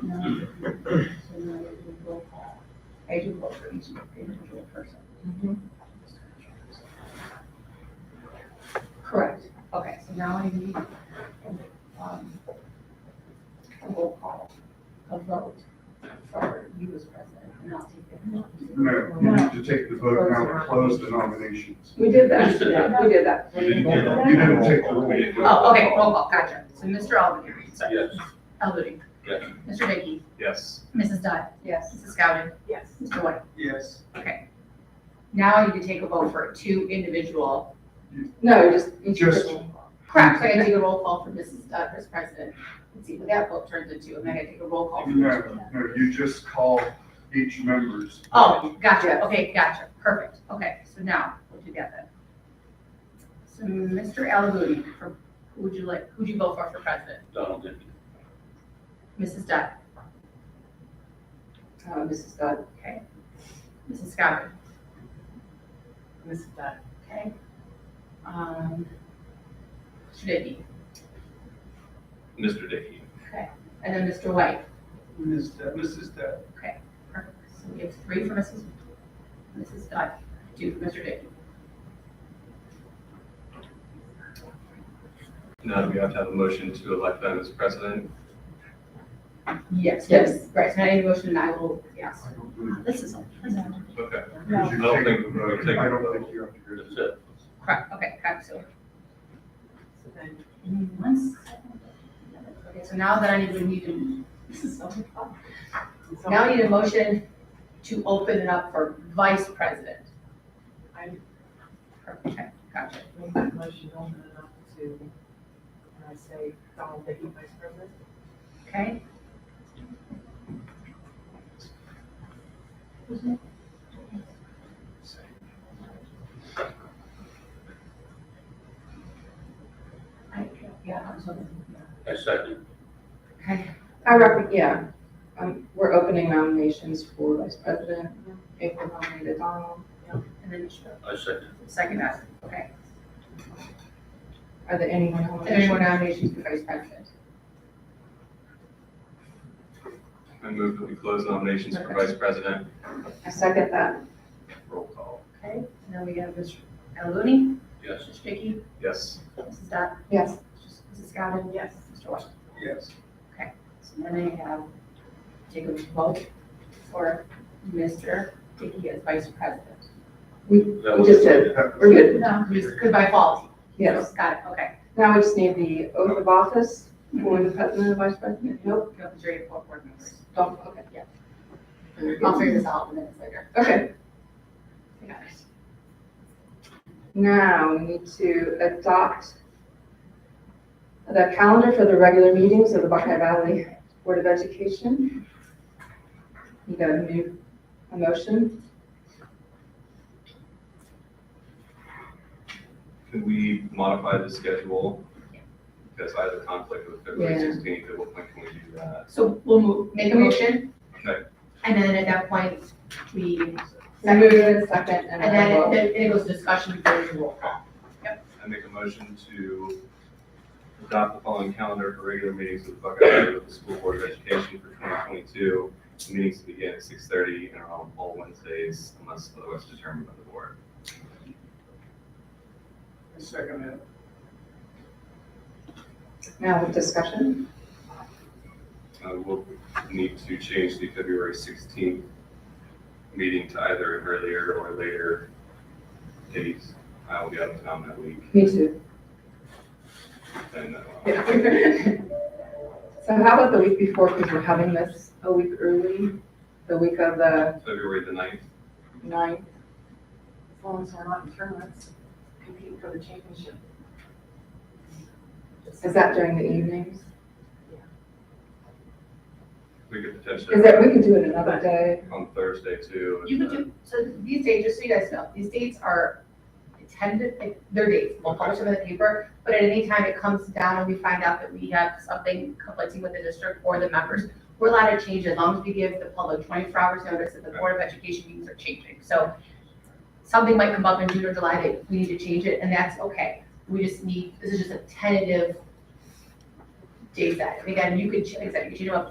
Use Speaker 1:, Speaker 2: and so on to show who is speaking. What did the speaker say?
Speaker 1: No. So now we do roll call. I do vote for each individual person. Correct. Okay, so now I need, um, a roll call, a vote for you as president, and I'll take it.
Speaker 2: No, you need to take the vote now to close the nominations.
Speaker 1: We did that, we did that.
Speaker 2: You didn't you didn't take the roll.
Speaker 1: Oh, okay, roll call, gotcha. So Mr. Albany, sorry,
Speaker 3: Yes.
Speaker 1: Albany.
Speaker 3: Yes.
Speaker 1: Mr. Dickey,
Speaker 3: Yes.
Speaker 1: Mrs. Dunn. Yes. Mrs. Scowden,
Speaker 4: Yes.
Speaker 1: Mr. White.
Speaker 3: Yes.
Speaker 1: Now you can take a vote for two individual.
Speaker 4: No, just. each
Speaker 2: Just-
Speaker 4: person.
Speaker 1: Correct, so I gotta take a roll call for Mrs. Dunn as president and see what that vote turns into, and then I gotta take a roll call. for each
Speaker 2: No,
Speaker 1: of them.
Speaker 2: no, you just call each member's.
Speaker 1: Oh, gotcha, okay, gotcha, perfect, okay, so now, we'll do that then. So Mr. Alabudi, for, who would you like, who'd you vote for for president?
Speaker 3: Donald Dickey.
Speaker 1: Mrs. Dunn,
Speaker 4: Uh, Mrs. Dodd.
Speaker 1: okay? Mrs. Scowden,
Speaker 4: Mrs. Dodd.
Speaker 1: okay? Um, Mr. Dickey,
Speaker 3: Mr. Dickey.
Speaker 1: and then Mr. White,
Speaker 3: Ms. Mrs. Deb.
Speaker 1: perfect, so we have three for Mrs. Mrs. Dunn, two for Mr. Dickey.
Speaker 3: Now do we have to have a motion to elect them as president?
Speaker 1: Yes,
Speaker 4: Yes.
Speaker 1: yes, right, so I need a motion, and I will, yes.
Speaker 2: I don't believe-
Speaker 1: This is all.
Speaker 3: Okay.
Speaker 2: because you take
Speaker 3: No. I don't think-
Speaker 2: the vote.
Speaker 3: take the
Speaker 2: I don't
Speaker 3: vote.
Speaker 2: think you have to do
Speaker 3: That's
Speaker 2: this.
Speaker 3: it.
Speaker 1: Correct, okay, correct, so
Speaker 4: So then,
Speaker 1: Give me one second. Okay, so now that I need, we need to, this is so much fun. Now I need a motion to open it up for vice president.
Speaker 4: I
Speaker 1: Okay, gotcha.
Speaker 4: make that motion open it up to, can I say, Donald Dickey, Vice President?
Speaker 1: Okay? I, yeah, I'm sorry.
Speaker 3: I second.
Speaker 1: Okay,
Speaker 4: I reckon, yeah, um, we're opening nominations for Vice President, if we nominate Donald.
Speaker 1: and then
Speaker 3: I second.
Speaker 1: second that, okay.
Speaker 4: Are there any more nominations?
Speaker 1: And any more nominations for vice president?
Speaker 3: I move that we close nominations for vice president.
Speaker 4: I second that.
Speaker 3: Roll call.
Speaker 1: Okay, and then we have Mr. Alooney,
Speaker 3: Yes.
Speaker 1: Mr. Dickey,
Speaker 3: Yes.
Speaker 1: Mrs. Dot,
Speaker 4: Yes.
Speaker 1: Mrs. Scowden,
Speaker 4: Yes.
Speaker 1: Mr. Washington.
Speaker 3: Yes.
Speaker 1: So then I have take a vote for Mr. Dickey as vice president.
Speaker 3: That
Speaker 4: We
Speaker 3: was
Speaker 4: just did. We're good.
Speaker 1: No, just good by default.
Speaker 4: Yes.
Speaker 1: Got it, okay.
Speaker 4: Now we just need the oath of office for the President and Vice President. Nope,
Speaker 1: Go up to jury of four board members.
Speaker 4: don't, okay.
Speaker 1: I'll figure this out in minutes later.
Speaker 4: Okay,
Speaker 1: I got it.
Speaker 4: now we need to adopt the calendar for the regular meetings of the Buckeye Valley Board of Education. You got a new, a motion?
Speaker 3: Could we modify the schedule? Because I have a conflict with February
Speaker 4: Yeah.
Speaker 3: sixteenth. At what point can we do that?
Speaker 1: So we'll move, make a motion.
Speaker 3: Okay.
Speaker 1: And then at that point, we,
Speaker 4: I move in second
Speaker 1: and
Speaker 4: and then
Speaker 1: then
Speaker 4: vote.
Speaker 1: it- it goes to discussion before the roll call.
Speaker 3: I make a motion to adopt the following calendar for regular meetings of the Buckeye Valley Local School Board of Education for 2022. Meetings to begin at 6:30 and are on all Wednesdays unless otherwise determined by the board.
Speaker 2: Second it.
Speaker 4: Now with discussion.
Speaker 3: Uh, We'll need to change the February 16th meeting to either an earlier or later date. I will be out of town that week.
Speaker 4: Me too.
Speaker 3: and, uh,
Speaker 4: So how about the week before, because we're having this a week early, the week of the
Speaker 3: February the 9th,
Speaker 4: ninth. As long as we're not in tournaments, competing for the championship. Is that during the evenings?
Speaker 3: we could potentially
Speaker 4: Is that, we could do it another day.
Speaker 3: on Thursday too.
Speaker 1: You could do, so these dates, just so you guys know, these dates are tentative, like, they're dates, we'll publish them in the paper, but at any time it comes down and we find out that we have something conflicting with the district or the members, we're allowed to change as long as we give the public twenty-four hours notice that the Board of Education meetings are changing. So something might come up in June or July that we need to change it, and that's okay. We just need, this is just a tentative date set. And again, you could, ch- like I said, you could change them up